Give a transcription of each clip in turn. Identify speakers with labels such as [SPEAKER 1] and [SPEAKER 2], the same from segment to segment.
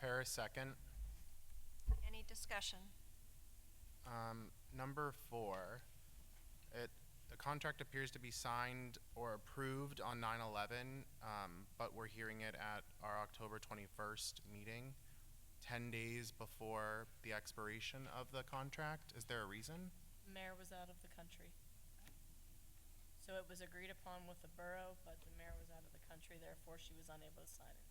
[SPEAKER 1] there a second?
[SPEAKER 2] Any discussion?
[SPEAKER 1] Um, number four, it, the contract appears to be signed or approved on 9/11, um, but we're hearing it at our October twenty-first meeting, ten days before the expiration of the contract. Is there a reason?
[SPEAKER 3] mayor was out of the country. So it was agreed upon with the borough, but the mayor was out of the country, therefore she was unable to sign it.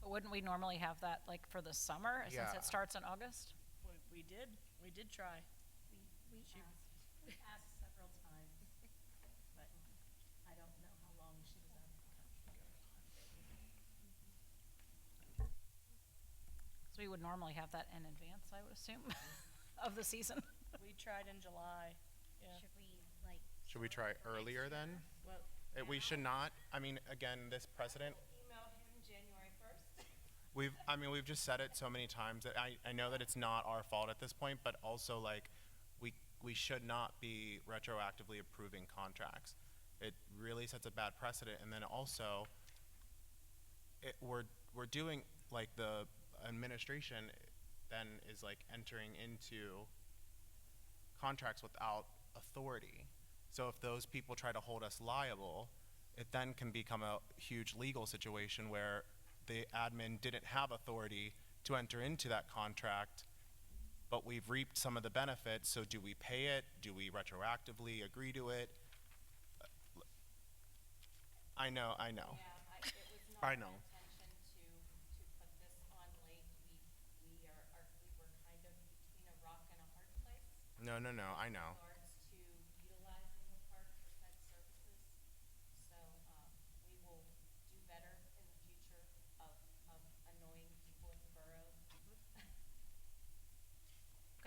[SPEAKER 4] But Wouldn't we normally have that like for the summer, since
[SPEAKER 1] Yeah.
[SPEAKER 4] it starts in August?
[SPEAKER 3] We, we did, we did try.
[SPEAKER 5] We, we
[SPEAKER 3] She-
[SPEAKER 5] asked, we asked several times, but I don't know how long she was out of the country.
[SPEAKER 4] 'Cause we would normally have that in advance, I would assume, of the season.
[SPEAKER 3] We tried in July, yeah.
[SPEAKER 5] Should we, like?
[SPEAKER 1] Should we try earlier then?
[SPEAKER 3] Well,
[SPEAKER 1] Uh, We should not, I mean, again, this precedent,
[SPEAKER 5] Email him January first.
[SPEAKER 1] We've, I mean, we've just said it so many times that I, I know that it's not our fault at this point, but also like, we, we should not be retroactively approving contracts. It really sets a bad precedent, and then also, it, we're, we're doing, like, the administration then is like entering into contracts without authority. So if those people try to hold us liable, it then can become a huge legal situation where the admin didn't have authority to enter into that contract, but we've reaped some of the benefits, so do we pay it? Do we retroactively agree to it? I know, I know.
[SPEAKER 6] Yeah, I, it was not
[SPEAKER 1] Oh. I
[SPEAKER 6] my
[SPEAKER 1] know.
[SPEAKER 6] intention to, to put this on late. We, we are, are, we were kind of between a rock and a hard place.
[SPEAKER 1] No, no, no, I know.
[SPEAKER 6] In regards to utilizing the park for said services. So, um, we will do better in the future of, of annoying people at the borough.
[SPEAKER 1] Mm-hmm.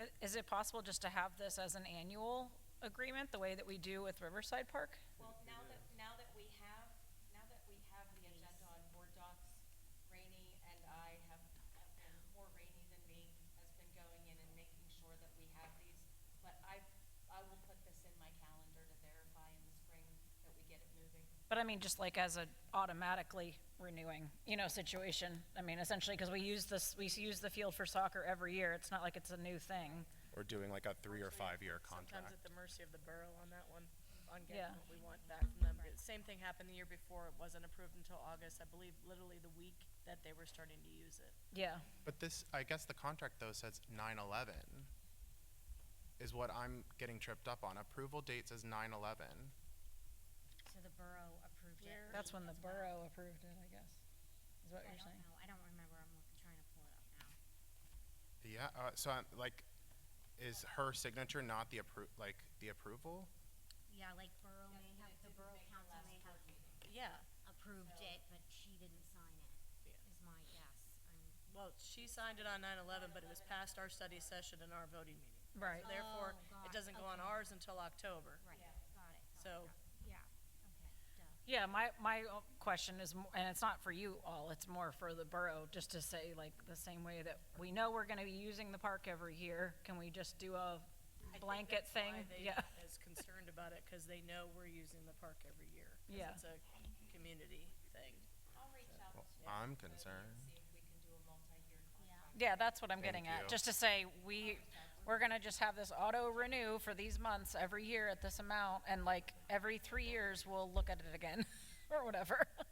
[SPEAKER 4] I- Is it possible just to have this as an annual agreement, the way that we do with Riverside Park?
[SPEAKER 6] Well, now that, now that we have, now that we have the agenda on board docs, Rainey and I have, have been, more Rainey than me, has been going in and making sure that we have these. But I, I will put this in my calendar to verify in the spring that we get it moving.
[SPEAKER 4] But I mean, just like as a automatically renewing, you know, situation. I mean, essentially, because we use this, we use the field for soccer every year. It's not like it's a new thing.
[SPEAKER 1] We're doing like a three or
[SPEAKER 3] actually,
[SPEAKER 1] five year
[SPEAKER 3] Sometimes at
[SPEAKER 1] contract.
[SPEAKER 3] the mercy of the borough on that one, on
[SPEAKER 4] Yeah.
[SPEAKER 3] getting what we want back from them. But Same thing happened the year before, it wasn't approved until August, I believe literally the week that they were starting to use it.
[SPEAKER 4] Yeah.
[SPEAKER 1] But this, I guess the contract though says nine eleven is what I'm getting tripped up on. Approval date says nine eleven.
[SPEAKER 5] So the borough approved it.
[SPEAKER 3] Where-
[SPEAKER 4] That's when the
[SPEAKER 5] as well.
[SPEAKER 4] borough approved it, I guess, is what
[SPEAKER 5] I
[SPEAKER 4] you're
[SPEAKER 5] don't
[SPEAKER 4] saying.
[SPEAKER 5] know, I don't remember, I'm look- trying to pull it up now.
[SPEAKER 1] Yeah, uh, so I'm like, is her signature not the appro, like, the approval?
[SPEAKER 5] Yeah, like borough may have, the borough council may have
[SPEAKER 3] Yeah,
[SPEAKER 5] approved it, but she didn't sign it,
[SPEAKER 3] Yeah.
[SPEAKER 5] is my guess. I'm-
[SPEAKER 3] well, she signed it on nine eleven, but it was past our study session and our voting meeting.
[SPEAKER 4] Right.
[SPEAKER 3] Therefore,
[SPEAKER 5] Oh, got
[SPEAKER 3] it
[SPEAKER 5] it.
[SPEAKER 3] doesn't go on
[SPEAKER 5] Okay.
[SPEAKER 3] ours until October.
[SPEAKER 5] Right, got it, got it.
[SPEAKER 3] So-
[SPEAKER 5] got it. Yeah, okay, duh.
[SPEAKER 4] Yeah, my, my o- question is, mo- and it's not for you all, it's more for the borough, just to say, like, the same way that we know we're gonna be using the park every year, can we just do a
[SPEAKER 3] I think
[SPEAKER 4] blanket
[SPEAKER 3] that's
[SPEAKER 4] thing?
[SPEAKER 3] why they
[SPEAKER 4] Yeah,
[SPEAKER 3] Is concerned about it, cause they know we're using the park every year. 'cause
[SPEAKER 4] Yeah.
[SPEAKER 3] It's a community thing.
[SPEAKER 6] I'll reach out to.
[SPEAKER 1] I'm
[SPEAKER 6] Jody and
[SPEAKER 1] concerned.
[SPEAKER 6] See if we can do a multi-year contract.
[SPEAKER 4] yeah, that's what I'm getting
[SPEAKER 1] Thank you.
[SPEAKER 4] at, just to say, we, we're gonna just have this auto renew for these months every year at this amount, and like, every three years, we'll look at it again, or whatever.